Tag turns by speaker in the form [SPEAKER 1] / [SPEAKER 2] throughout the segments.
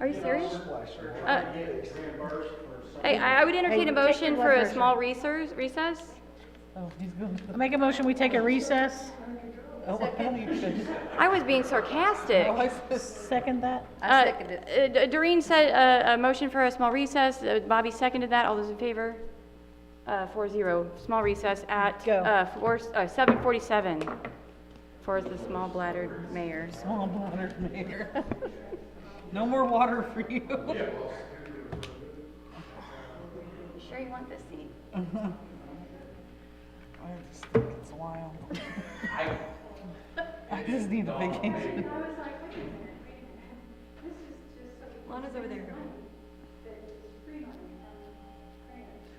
[SPEAKER 1] Are you serious?
[SPEAKER 2] Uh,
[SPEAKER 1] Hey, I I would entertain a
[SPEAKER 3] Hey, take
[SPEAKER 1] motion
[SPEAKER 3] the
[SPEAKER 1] for a
[SPEAKER 3] reverse.
[SPEAKER 1] small recess, recess?
[SPEAKER 3] Oh, he's going to. Make a motion, we take a recess. Oh, I thought you could.
[SPEAKER 1] I was being sarcastic.
[SPEAKER 3] Oh, I Second that?
[SPEAKER 1] Uh, uh, Doreen said uh, a motion for a small recess. Uh, Bobby seconded that. All those in favor? Uh, Four zero. Small recess at
[SPEAKER 3] Go.
[SPEAKER 1] uh, four uh, 7:47 for the small bladdered mayor.
[SPEAKER 3] Small water, Mayor. No more water for you.
[SPEAKER 1] You sure you want this seat?
[SPEAKER 3] I just think it's wild. I just need a vacation.
[SPEAKER 1] Lana's over there.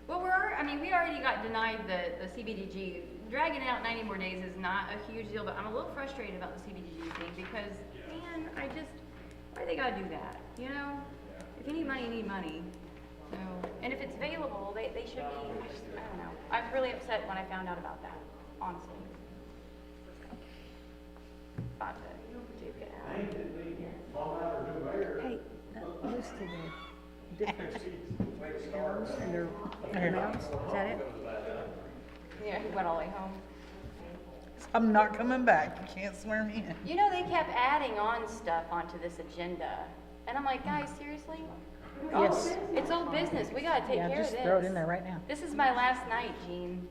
[SPEAKER 1] Well, we're, alre- I mean, we already got denied the, the CBDG. Dragging it out ninety more days is not a huge deal, but I'm a little frustrated about the CBDG thing because, man, I just, why they gotta do that, you know? If you need money, you need money. So, and if it's available, they, they should be, I just, I don't know. I was really upset when I found out about that, honestly. About to duke it out.
[SPEAKER 4] Hey, that used to the different towns and their amounts, is that it?
[SPEAKER 1] Yeah, he went all the way home.
[SPEAKER 3] I'm not coming back. You can't swear me in.
[SPEAKER 1] You know, they kept adding on stuff onto this agenda. And I'm like, guys, seriously?
[SPEAKER 5] Oh.
[SPEAKER 3] Yes.
[SPEAKER 1] It's old business. We gotta take care of
[SPEAKER 3] Yeah,
[SPEAKER 1] this.
[SPEAKER 3] just throw it in there right now.
[SPEAKER 1] This is my last night, Gene.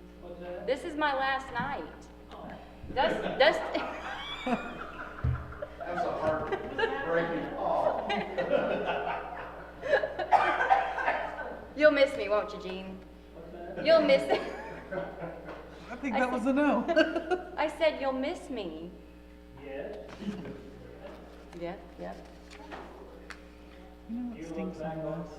[SPEAKER 1] This is my last night. Does, does.
[SPEAKER 2] That's a hard breaking off.
[SPEAKER 1] You'll miss me, won't you, Gene? You'll miss,
[SPEAKER 3] I think that was a no.
[SPEAKER 1] I said, you'll miss me. Yeah. Yeah, yeah.
[SPEAKER 3] You know what stinks on those?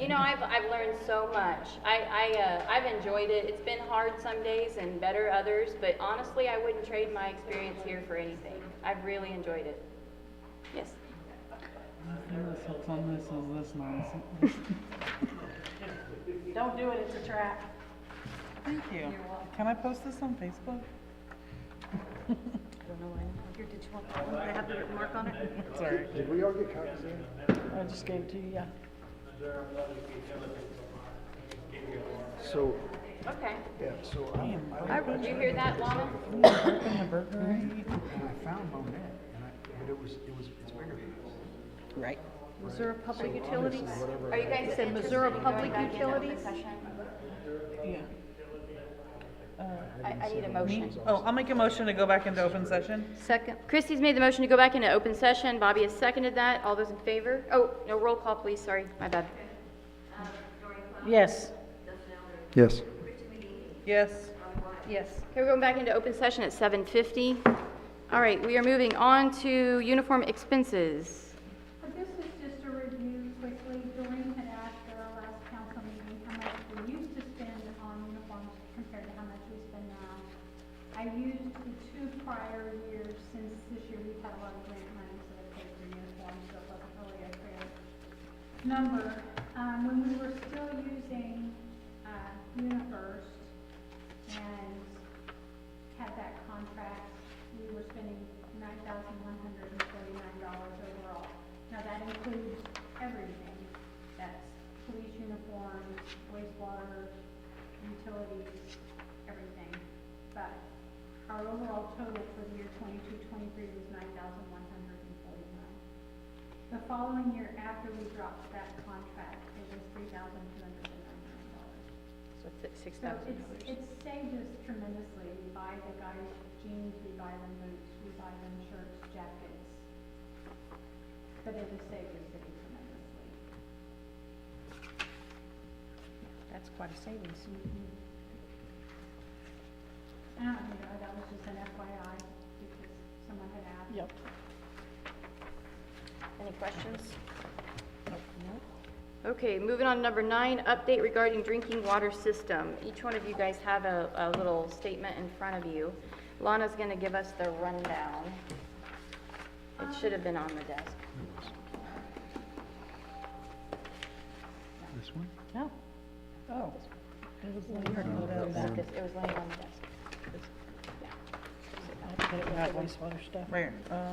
[SPEAKER 1] You know, I've, I've learned so much. I, I, uh, I've enjoyed it. It's been hard some days and better others, but honestly, I wouldn't trade my experience here for anything. I've really enjoyed it. Yes.
[SPEAKER 3] You know what sucks on this is this nonsense.
[SPEAKER 5] Don't do it, it's a trap.
[SPEAKER 3] Thank you. Can I post this on Facebook?
[SPEAKER 1] I don't know why.
[SPEAKER 4] Here, did you want, that one? Did I have the written mark on it?
[SPEAKER 3] Sorry.
[SPEAKER 2] Did we all get copies in?
[SPEAKER 3] I just gave it to you, yeah.
[SPEAKER 2] So,
[SPEAKER 1] Okay.
[SPEAKER 2] yeah, so
[SPEAKER 3] Damn.
[SPEAKER 2] I, I
[SPEAKER 1] Did you hear that, Lana?
[SPEAKER 3] Open the burglary.
[SPEAKER 2] and I found Monette, and I, but it was, it was, it's bigger than this.
[SPEAKER 3] Right.
[SPEAKER 4] Missouri Public Utilities?
[SPEAKER 1] Are you guys
[SPEAKER 4] said
[SPEAKER 1] interested
[SPEAKER 4] Missouri
[SPEAKER 1] in going
[SPEAKER 4] Public
[SPEAKER 1] back into open
[SPEAKER 4] Utilities?
[SPEAKER 1] session?
[SPEAKER 3] Yeah.
[SPEAKER 1] I, I need a motion.
[SPEAKER 3] Oh, I'll make a motion to go back into open session.
[SPEAKER 4] Second,
[SPEAKER 1] Christie's made the motion to go back into open session. Bobby has seconded that. All those in favor? Oh, no, roll call, please. Sorry, my bad.
[SPEAKER 3] Yes.
[SPEAKER 2] Yes.
[SPEAKER 3] Yes.
[SPEAKER 4] yes.
[SPEAKER 1] Okay, we're going back into open session at 7:50. All right, we are moving on to uniform expenses.
[SPEAKER 6] But this is just a review quickly. Doreen had asked at our last council meeting how much we used to spend on uniforms compared to how much we spend now. I used the two prior years, since this year we've had a lot of grant money, so they paid for uniforms, so it wasn't really a fair number. Um, when we were still using, uh, UniFirst and had that contract, we were spending nine thousand one hundred and forty-nine dollars overall. Now, that includes everything, that's police uniforms, wastewater, utilities, everything. But our overall total for the year twenty-two, twenty-three was nine thousand one hundred and forty-nine. The following year after we dropped that contract, it was three thousand two hundred and ninety-nine dollars.
[SPEAKER 4] So it's six
[SPEAKER 6] So
[SPEAKER 4] thousand
[SPEAKER 6] it's,
[SPEAKER 4] dollars.
[SPEAKER 6] it's saved us tremendously. We buy the guys jeans, we buy them boots, we buy them shirts, jackets. But it has saved the city tremendously.
[SPEAKER 4] That's quite a savings.
[SPEAKER 6] And I don't know, that was just an FYI because someone had asked.
[SPEAKER 3] Yep.
[SPEAKER 4] Any questions?
[SPEAKER 1] Okay, moving on to number nine, update regarding drinking water system. Each one of you guys have a, a little statement in front of you. Lana's going to give us the rundown. It should have been on the desk.
[SPEAKER 2] This one?
[SPEAKER 4] No.
[SPEAKER 3] Oh. It was like-
[SPEAKER 1] Just- It was laying on the desk.
[SPEAKER 4] I put it with the wastewater stuff.
[SPEAKER 3] Right, uh,